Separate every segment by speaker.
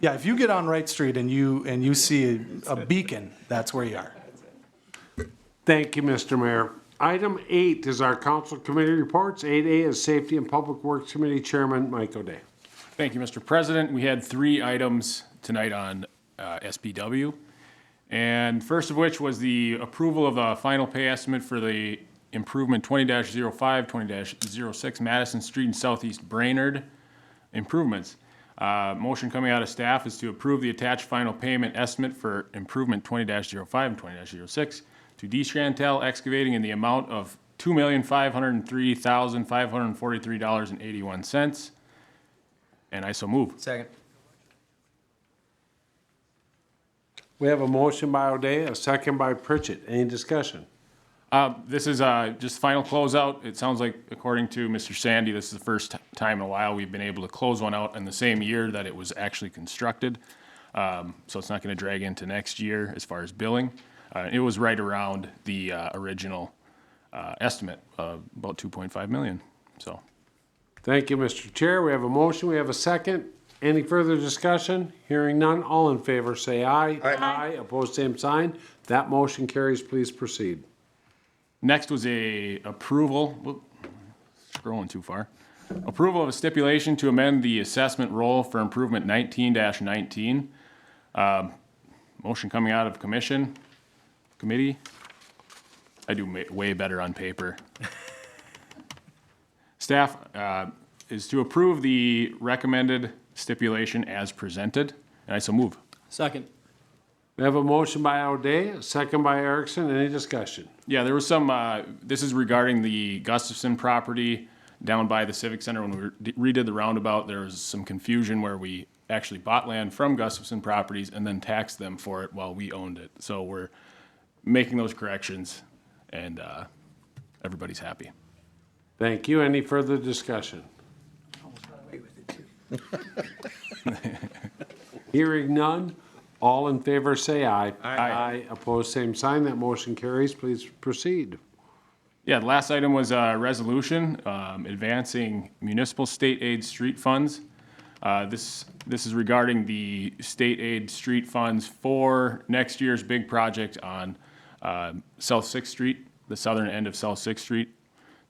Speaker 1: Yeah, if you get on Wright Street and you, and you see a beacon, that's where you are.
Speaker 2: Thank you, Mr. Mayor. Item eight is our council committee reports. Eight A is Safety and Public Works Committee Chairman Mike O'Day.
Speaker 3: Thank you, Mr. President. We had three items tonight on uh, SBW. And first of which was the approval of the final pay estimate for the improvement 20-05, 20-06 Madison Street and Southeast Brainerd improvements. Uh, Motion coming out of staff is to approve the attached final payment estimate for improvement 20-05 and 20-06 to D. Chantel Excavating in the amount of $2,503,543.81. And I so move.
Speaker 4: Second.
Speaker 2: We have a motion by O'Day, a second by Pritchett. Any discussion?
Speaker 3: Uh, This is uh, just final closeout. It sounds like, according to Mr. Sandy, this is the first ti- time in a while we've been able to close one out in the same year that it was actually constructed. Um, So it's not going to drag into next year as far as billing. Uh, It was right around the uh, original uh, estimate of about 2.5 million, so.
Speaker 2: Thank you, Mr. Chair. We have a motion, we have a second. Any further discussion? Hearing none, all in favor say aye. Aye. Opposed, same sign. That motion carries. Please proceed.
Speaker 3: Next was a approval, whoop, scrolling too far. Approval of a stipulation to amend the assessment role for improvement nineteen nineteen. Um, Motion coming out of commission, committee. I do ma- way better on paper. Staff uh, is to approve the recommended stipulation as presented, and I so move.
Speaker 4: Second.
Speaker 2: We have a motion by O'Day, a second by Erickson. Any discussion?
Speaker 3: Yeah, there was some, uh, this is regarding the Gustafson property down by the Civic Center. When we redid the roundabout, there was some confusion where we actually bought land from Gustafson Properties and then taxed them for it while we owned it. So we're making those corrections and, uh, everybody's happy.
Speaker 2: Thank you. Any further discussion? Hearing none, all in favor say aye. Aye. Opposed, same sign. That motion carries. Please proceed.
Speaker 3: Yeah, the last item was a resolution um, advancing municipal state aid street funds. Uh, This, this is regarding the state aid street funds for next year's big project on uh, South Sixth Street, the southern end of South Sixth Street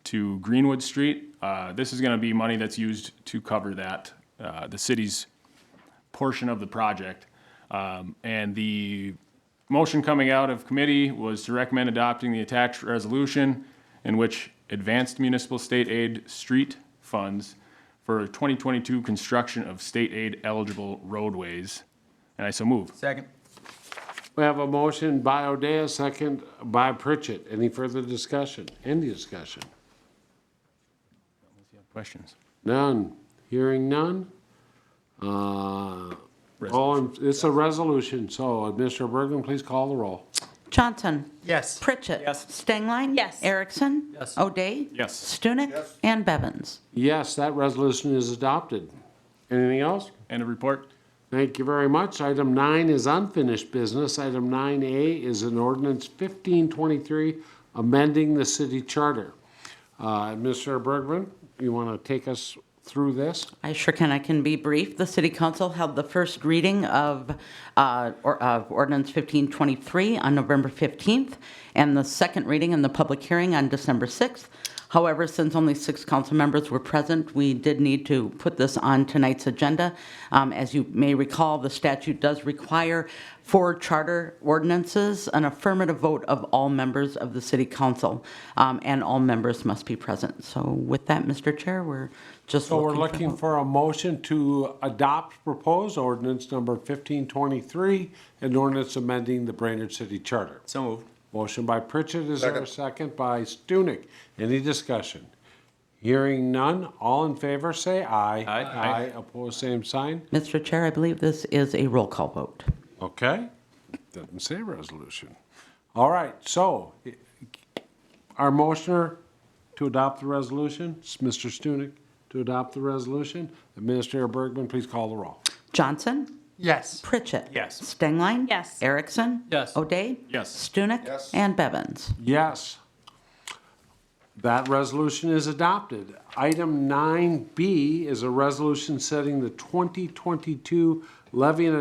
Speaker 3: to Greenwood Street. Uh, This is going to be money that's used to cover that, uh, the city's portion of the project. Um, And the motion coming out of committee was to recommend adopting the attached resolution in which advanced municipal state aid street funds for 2022 construction of state aid eligible roadways. And I so move.
Speaker 4: Second.
Speaker 2: We have a motion by O'Day, a second by Pritchett. Any further discussion? Any discussion?
Speaker 3: Questions?
Speaker 2: None. Hearing none. Uh, All, in- it's a resolution, so uh, Mr. Bergen, please call the roll.
Speaker 5: Johnson.
Speaker 4: Yes.
Speaker 5: Pritchett.
Speaker 4: Yes.
Speaker 5: Stengline.
Speaker 6: Yes.
Speaker 5: Erickson.
Speaker 4: Yes.
Speaker 5: O'Day.
Speaker 3: Yes.
Speaker 5: Stunek. And Bevins.
Speaker 2: Yes, that resolution is adopted. Anything else?
Speaker 3: End of report.
Speaker 2: Thank you very much. Item nine is unfinished business. Item nine A is an ordinance fifteen twenty-three, amending the city charter. Uh, Mr. Bergman, you want to take us through this?
Speaker 5: I sure can. I can be brief. The City Council held the first reading of, uh, or- of ordinance 1523 on November 15th, and the second reading and the public hearing on December 6th. However, since only six council members were present, we did need to put this on tonight's agenda. Um, As you may recall, the statute does require for charter ordinances an affirmative vote of all members of the City Council, um, and all members must be present. So with that, Mr. Chair, we're just
Speaker 2: So
Speaker 5: looking
Speaker 2: we're
Speaker 5: for votes.
Speaker 2: looking for a motion to adopt proposed ordinance number fifteen twenty-three, an ordinance amending the Brainerd City Charter.
Speaker 4: So moved.
Speaker 2: Motion by Pritchett, is there a second by Stunek? Any discussion? Hearing none, all in favor, say aye.
Speaker 4: Aye.
Speaker 2: Aye, opposed, same sign.
Speaker 5: Mr. Chair, I believe this is a roll call vote.
Speaker 2: Okay, doesn't say resolution. All right, so our motioner to adopt the resolution, it's Mr. Stunek to adopt the resolution. Administrator Bergman, please call the roll.
Speaker 5: Johnson?
Speaker 4: Yes.
Speaker 5: Pritchett?
Speaker 2: Yes.
Speaker 5: Stengline?
Speaker 6: Yes.
Speaker 5: Erickson?
Speaker 4: Yes.
Speaker 5: O'Day?
Speaker 3: Yes.
Speaker 5: Stunek? And Bevins?
Speaker 2: Yes. That resolution is adopted. Item 9B is a resolution setting the 2022 levy and